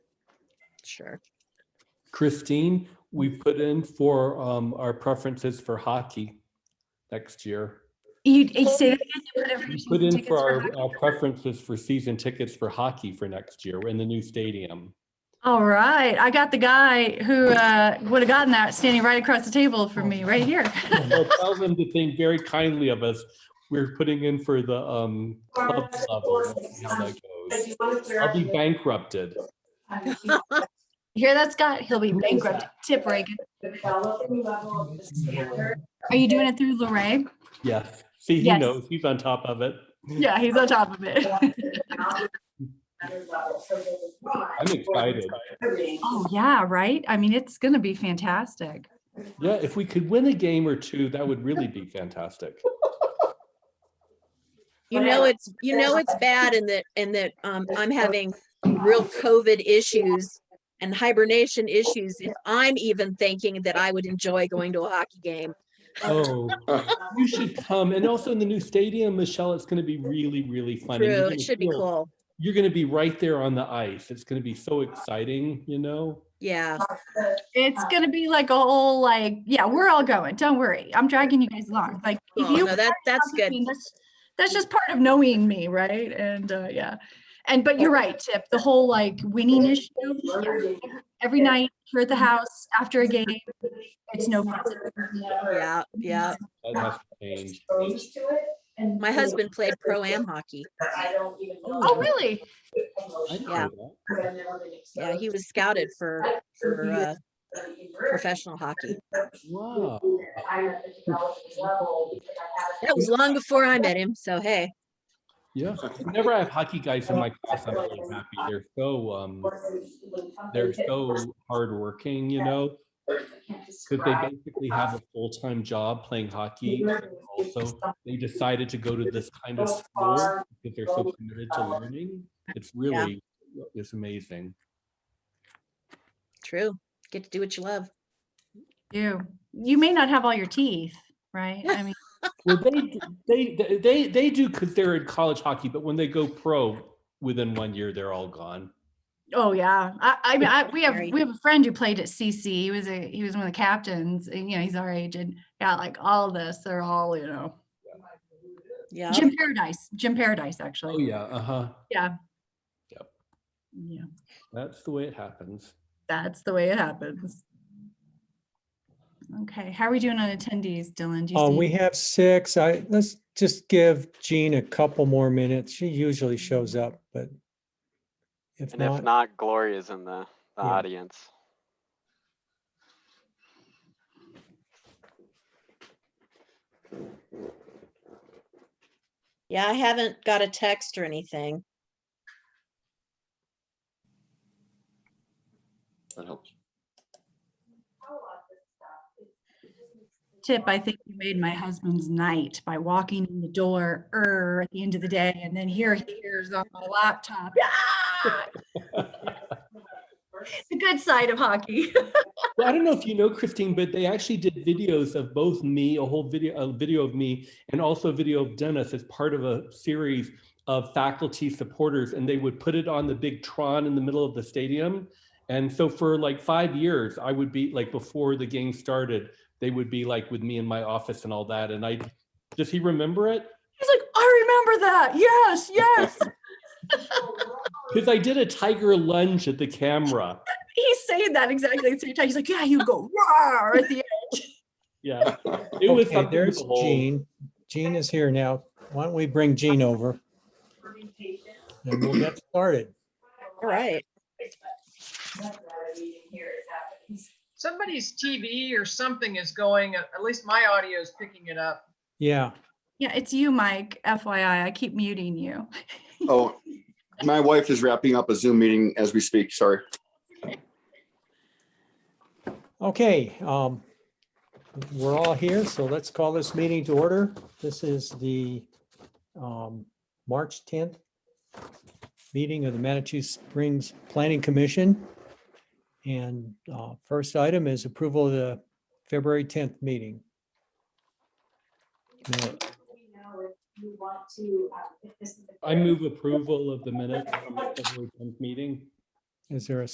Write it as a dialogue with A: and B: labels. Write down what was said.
A: sure.
B: Christine, we put in for um, our preferences for hockey next year.
C: You, you say that again? You put
B: We put
C: information for
B: in
C: tickets
B: for
C: for
B: our
C: hockey?
B: our preferences for season tickets for hockey for next year in the new stadium.
C: All right, I got the guy who uh, would have gotten that standing right across the table from me, right here.
B: So Tell them to think very kindly of us. We're putting in for the um, club level. Let's see how that goes. I'll be bankrupted.
C: You Hear that, Scott? He'll be bankrupt. Tip Reagan. Are you doing it through Lorraine?
B: Yes. See, he
C: Yes.
B: knows. He's on top of it.
C: Yeah, he's on top of it.
B: I'm excited.
C: Oh, yeah, right? I mean, it's gonna be fantastic.
B: Yeah, if we could win a game or two, that would really be fantastic.
A: You know, it's, you know, it's bad in that, in that um, I'm having real COVID issues and hibernation issues. If I'm even thinking that I would enjoy going to a hockey game.
B: Oh, you should come. And also in the new stadium, Michelle, it's going to be really, really fun. and you're
A: True,
B: gonna
A: it should be
B: feel-
A: cool.
B: You're going to be right there on the ice. It's going to be so exciting, you know?
A: Yeah,
C: It's gonna be like a whole like, yeah, we're all going. Don't worry. I'm dragging you guys along. Like if
A: Cool.
C: you
A: Oh, no, that, that's
C: I
A: good.
C: mean, That's that's just part of knowing me, right? And uh, yeah, and but you're right, Tip. The whole like winning issue. yeah. Every night here at the house after a game, it's no fun.
A: Yeah, yeah.
B: That has to change.
A: My husband played pro-am hockey.
C: Oh, really?
B: I didn't
A: Yeah.
B: know that.
A: Yeah, he was scouted for, for uh, professional hockey.
B: Wow.
A: That was long before I met him, so hey.
B: Yeah. Whenever I have hockey guys in my class, I'm really happy. They're so, um, they're so hardworking, you know? Because they basically have a full-time job playing hockey. and Also, they decided to go to this kind of school because they're so committed to learning. It's really, it's amazing.
A: True. Get to do what you love.
C: You you may not have all your teeth, right? I mean,
B: Well, they, d- they, they- they, they do because they're in college hockey, but when they go pro, within one year, they're all gone.
C: oh yeah. I, I mean, I, we have
A: Right.
C: we have a friend who played at CC. He was a he was one of the captains, and you know he's our age, and got like all this. They're all you know
A: Yeah.
C: Jim Paradise, Jim Paradise actually.
B: Oh, yeah, uh-huh.
C: yeah.
B: That's the way it happens.
C: that's the way it happens. Okay, how are we doing on attendees, Dylan? Do you
D: Um,
C: see?
D: we have six. I, let's just give Jean a couple more minutes. She usually shows up, but if
E: And if
D: not,
E: not, Gloria's in the, the
D: Yeah.
E: audience.
A: Yeah, I haven't got a text or anything.
F: That helps.
C: Tip, I think you made my husband's night by walking in the door er, at the end of the day, and then here he is on my laptop. Ah! The good side of hockey.
B: Well, I don't know if you know Christine, but they actually did videos of both me, a whole video, a video of me, and also a video of Dennis as part of a series of faculty supporters, and they would put it on the big Tron in the middle of the stadium. And so for like five years, I would be like before the game started, they would be like with me in my office and all that. And I, does he remember it?
C: He's like, I remember that. Yes, yes.
B: Because I did a tiger lunge at the camera.
C: He's saying that exactly at the same time. He's like, yeah, you go roar at the end.
B: Yeah, it was
D: okay,
B: something
D: there's
B: to behold.
D: Jean. Jean is here now. Why don't we bring Jean over? And we'll get started.
A: All right.
G: Somebody's TV or something is going, at at least my audio is picking it up.
D: Yeah,
C: Yeah, it's you, Mike. FYI, I keep muting you.
F: Oh, my wife is wrapping up a Zoom meeting as we speak. Sorry.
D: okay, um, we're all here, so let's call this meeting to order. This is the, um, March tenth meeting of the Manitou Springs Planning Commission. And, uh, first item is approval of the February tenth meeting. Minute.
B: I move approval of the minutes from the February 10th meeting.
D: Is there a